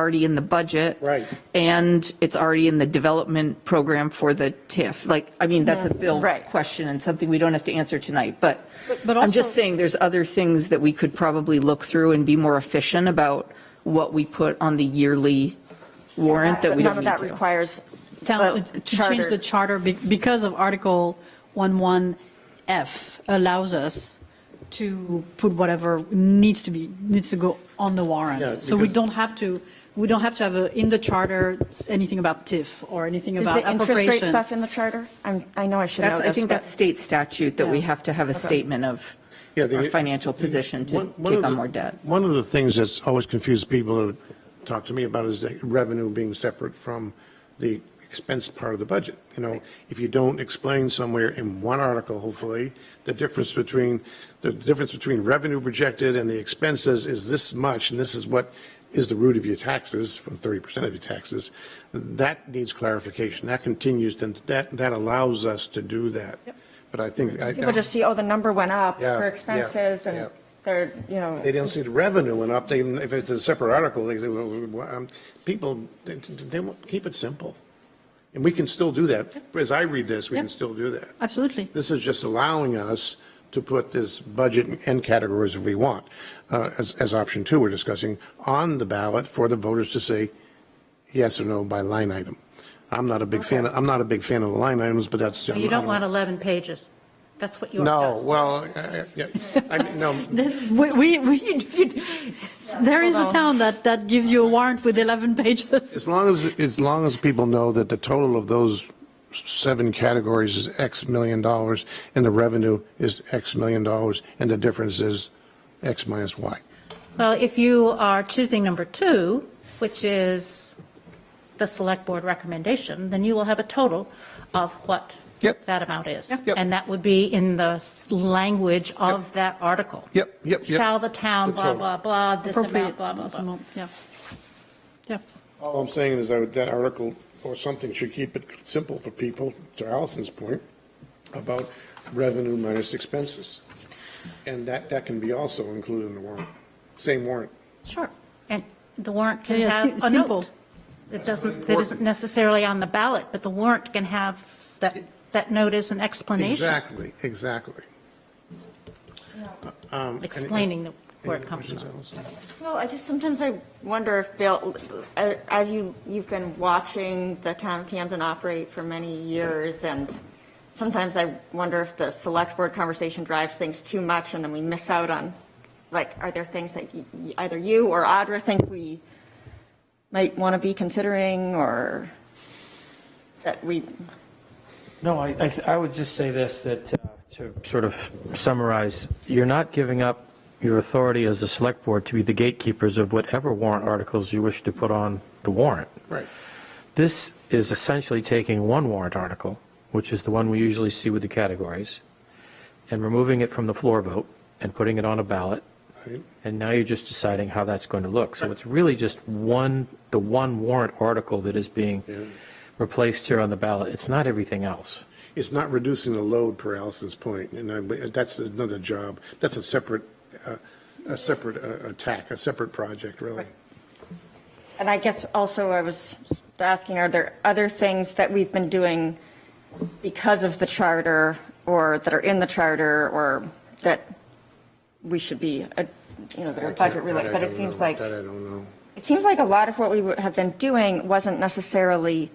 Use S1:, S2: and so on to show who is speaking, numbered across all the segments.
S1: already in the budget.
S2: Right.
S1: And it's already in the development program for the TIF. Like, I mean, that's a bill
S3: Right.
S1: question and something we don't have to answer tonight, but
S3: but
S1: I'm just
S3: also-
S1: saying there's other things that we could probably look through and be more efficient about what we put on the yearly warrant that we don't
S3: None of
S1: need
S3: that
S1: to.
S3: requires
S4: town,
S3: a
S4: to change
S3: charter.
S4: the charter be- because of Article 11F allows us to put whatever needs to be, needs to go on the
S2: Yeah,
S4: warrant. So we
S2: because-
S4: don't have to, we don't have to have a- in the charter anything about TIF or anything
S3: Is
S4: about
S3: the interest rate
S4: appropriation.
S3: stuff in the charter? I'm, I know I should know
S1: That's,
S3: this.
S1: I think
S3: but-
S1: that's state statute that we
S4: Yeah.
S1: have to have a statement of
S2: Yeah, the-
S1: our financial position to
S2: One- one
S1: take
S2: of
S1: on
S2: the-
S1: more debt.
S2: One of the things that's always confused people who talk to me about is the revenue being separate from the expense part of the budget. You know, if you don't explain somewhere in one article, hopefully, the difference between, the difference between revenue projected and the expenses is this much, and this is what is the root of your taxes, from 30% of your taxes, that needs clarification. That continues, and that, that allows us to do that. But I think. I-
S3: People just see, oh, the number went up
S2: Yeah,
S3: for
S2: yeah,
S3: expenses
S2: yeah.
S3: and they're, you know,
S2: They don't see the revenue went up, they, if it's a separate article, they, they- um, people, they, they won't- keep it simple. And we can still do that. As I read this, we can
S4: Yeah.
S2: still do that.
S4: Absolutely.
S2: This is just allowing us to put this budget in end categories if we want, uh, as, as option two we're discussing, on the ballot for the voters to say yes or no by line item. I'm not a big fan, I'm not a big fan of the line items, but that's.
S5: You don't want 11 pages. That's what yours
S2: No,
S5: does.
S2: well, uh, yeah, I mean, no,
S4: This- We, we, we- if you- there is a town that, that gives you a warrant with 11 pages.
S2: As long as, as long as people know that the total of those seven categories is X million dollars, and the revenue is X million dollars, and the difference is X minus Y.
S5: Well, if you are choosing number two, which is the select board recommendation, then you will have a total of what
S2: Yep.
S5: that amount is.
S2: Yep.
S5: And that would be in the s- language of that article.
S2: Yep, yep, yep.
S5: Shall the town,
S2: The
S5: blah,
S2: total.
S5: blah, blah, this amount,
S4: Appropriate,
S5: blah, blah,
S4: this
S5: blah.
S4: amount, Yeah. Yeah.
S2: All I'm saying is that that article or something should keep it simple for people, to Allison's point, about revenue minus expenses. And that, that can be also included in the warrant, same warrant.
S5: Sure. And the warrant can
S4: Yeah, yeah,
S5: have
S4: si-
S5: a
S4: simple.
S5: note. It doesn't, that isn't necessarily on the ballot, but the warrant can have that, that note as an explanation,
S2: Exactly, exactly. Um, any-
S5: explaining the- where it
S2: any
S5: comes
S2: questions,
S5: from.
S2: Allison?
S3: Well, I just, sometimes I wonder if Bill, as you, you've been watching the town of Camden operate for many years, and sometimes I wonder if the select board conversation drives things too much, and then we miss out on, like, are there things that y- y- either you or Audra think we might want to be considering, or that we,
S6: No, I, I th- I would just say this, that uh, to sort of summarize, you're not giving up your authority as the select board to be the gatekeepers of whatever warrant articles you wish to put on the warrant.
S2: Right.
S6: This is essentially taking one warrant article, which is the one we usually see with the categories, and removing it from the floor vote and putting it on a ballot.
S2: Right.
S6: And now you're just deciding how that's going to look. So it's really just one, the one warrant article that is being replaced here on the ballot. It's not everything else.
S2: It's not reducing the load per Allison's point, and I- that's another job, that's a separate, uh, a separate uh, attack, a separate project, really.
S3: and I guess also I was asking, are there other things that we've been doing because of the charter or that are in the charter or that we should be, uh, you know, that are budget related? But
S2: That I
S3: it
S2: don't
S3: seems
S2: know.
S3: like,
S2: That I don't know.
S3: it seems like a lot of what we would have been doing wasn't necessarily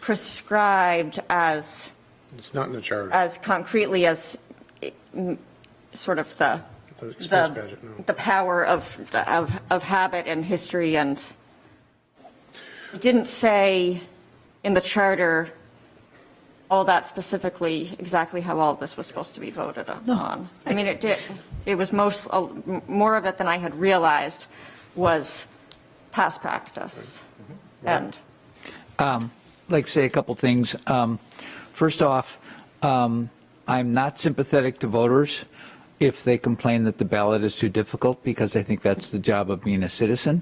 S3: prescribed as,
S2: It's not in the charter,
S3: as concretely as eh, m- sort of the,
S2: the expense
S3: the,
S2: budget, no.
S3: the power of, of, of habit and history and it didn't say in the charter all that specifically, exactly how all this was supposed to be voted on. I mean, it did, it was most, a- m- more of it than I had realized was past practice.
S2: Mm-hmm.
S3: And
S7: um, like to say a couple things. Um, first off, um, I'm not sympathetic to voters if they complain that the ballot is too difficult because I think that's the job of being a citizen.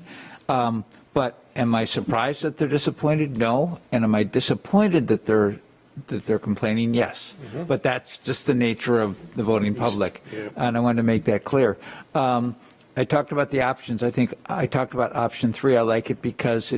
S7: Um, but am I surprised that they're disappointed? No. And am I disappointed that they're that they're complaining? Yes. But that's just the nature of the voting public,
S2: Yeah.
S7: and I wanted to make that clear. Um, I talked about the options. I think I talked about option three. I like it because it